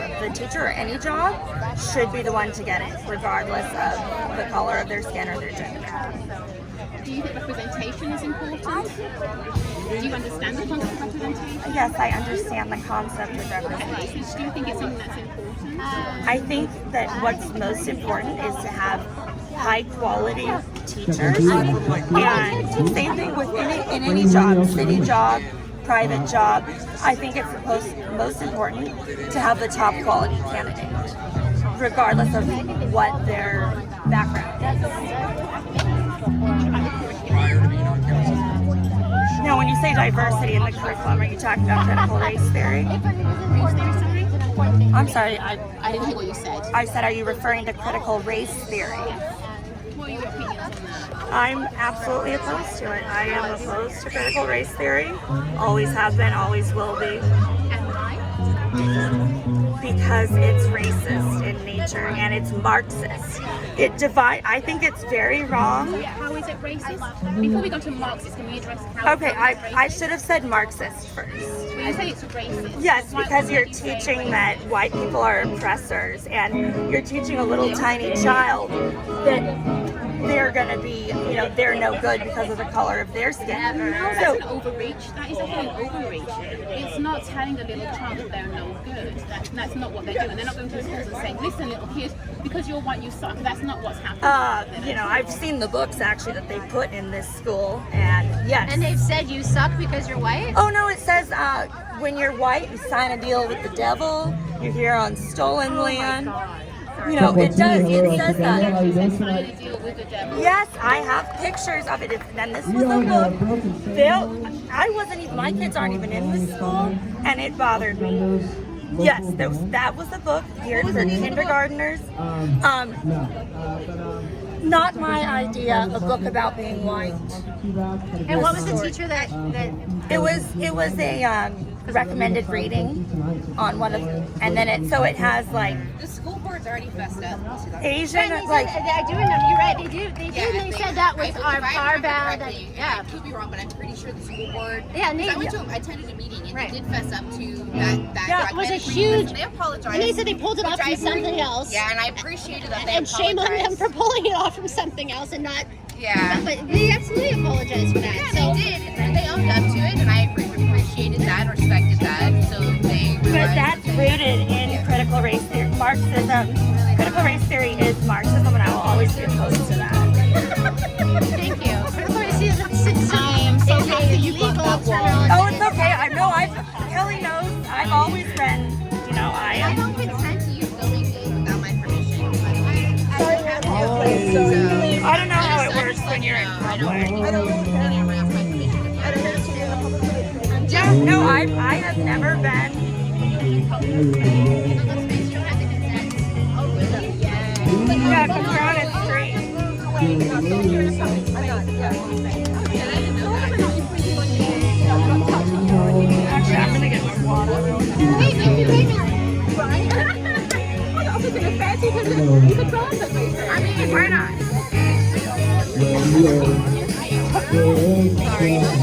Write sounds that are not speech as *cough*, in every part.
a teacher or any job should be the one to get it, regardless of the color of their skin or their gender. Do you think representation is important? Do you understand the concept of representation? Yes, I understand the concept of representation. Okay, so do you think it's something that's important? I think that what's most important is to have high quality teachers. And same thing with any, in any job, city job, private job. I think it's most, most important to have the top quality candidate, regardless of what their background is. Now, when you say diversity in the curriculum, are you talking about critical race theory? I'm sorry, I, I didn't hear what you said. I said, are you referring to critical race theory? What are your opinions on that? I'm absolutely opposed to it. I am opposed to critical race theory. Always have been, always will be. And why? because it's racist in nature and it's Marxist. It divide. I think it's very wrong. How is it racist? Before we go to Marxist, can we address how Okay, I, I should have said Marxist first. I say it's racist. Yes, Why because would you're you say teaching racist? that white people are oppressors and you're teaching a little tiny child that they're gonna be, you know, they're no good because of the color of their skin. No, that's an So overreach. That is definitely an overreach. It's not telling a little child that they're no good. That, that's not what they're doing. They're not going to the schools and saying, listen, little kids, because you're white, you suck. That's not what's happening. uh, you know, I've seen the books actually that they put in this school and yes. And they've said you suck because you're white? Oh no, it says uh, when you're white, you sign a deal with the devil. You're here on Oh stolen land. You know, it does. It says that. Trying to deal with the devil. Yes, I have pictures of it. If- And this was a book. Bill, They'll, I wasn't even. My kids aren't even in this school, and it bothered me. Yes, that was, that was the book geared for kindergartners. Um, not my idea. A book about being white. And what was the teacher that, that It was. It was a um, recommended reading. on one of and then it so it has like The school board's already messed up. Asian and they like said, I do remember, you're right, they do, they do, they said that was if I our, remember our bad, correctly, and yeah. I could be wrong, but I'm pretty sure the school board. Yeah, and they- 'cause I went to, I attended a meeting and Right. they did fess up to that. that Yeah, it was documentary. a huge- And they apologized. And they said they pulled it which off I from agree. something else. Yeah, and I appreciated that they And shame on them for apologized. pulling it off from something else and not, *laughs* Yeah. but they absolutely apologize for that, Yeah, so. they did, and they owned up to it, and I appre- appreciated that, respected that. So they. but that's rooted in critical race theory Marxism. Critical race theory is Marxism and I will always be opposed to that. Thank you. I'm so happy you got that one. Oh it's okay. I know I've Kelly knows I've always been you know, I I am don't consent to you filming me without my permission. but I, I have to. I don't know how it works when you're in public. I don't Yeah, no, I I have never been yeah, 'cause we're on a street. Actually I'm gonna get my water. I mean why not?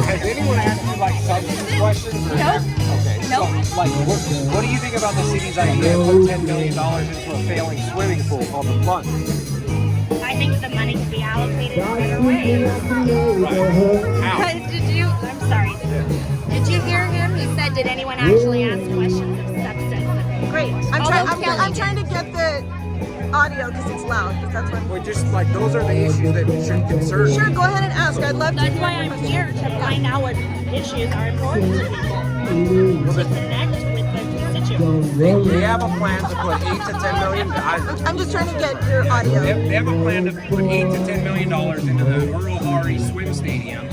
Has anyone asked you like substance questions? Or Nope. Okay. so, Nope. Like, what, what do you think about the city's idea to put ten million dollars into a failing swimming pool called the Blunt? I think the money could be allocated in better ways. How? Did you? I'm sorry. Did you hear him? He said, "Did anyone actually ask questions of substance?" Great. I'm, try- I'm, I'm trying to get the audio because it's loud. 'cause that's what. Well, just like those are the issues that should concern. Sure, go ahead and ask. I'd love That's to. why I'm here to find out what issues are important to people to connect with the constituents. They have a plan to put eight to ten million. I, I'm just trying to get your audio. They they have a plan to put eight to ten million dollars into the Uruhari Swim Stadium.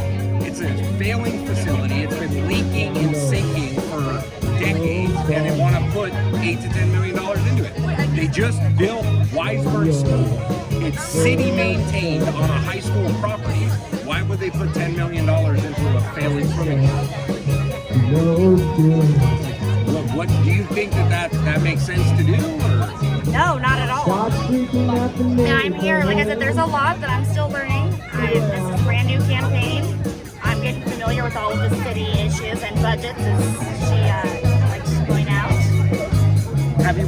It's a failing facility. It's been leaking and sinking for decades, and they want to put eight to ten million dollars into it. They just built Weisberg School. It's city maintained on a high school property. Why would they put ten million dollars into a failing swimming pool? Look, what do you think that that, that makes sense to do? Or? No, not at all. And I'm here. Like I said, there's a lot that I'm still learning. I, this is a brand new campaign. I'm getting familiar with all of the city issues and budgets. As she uh,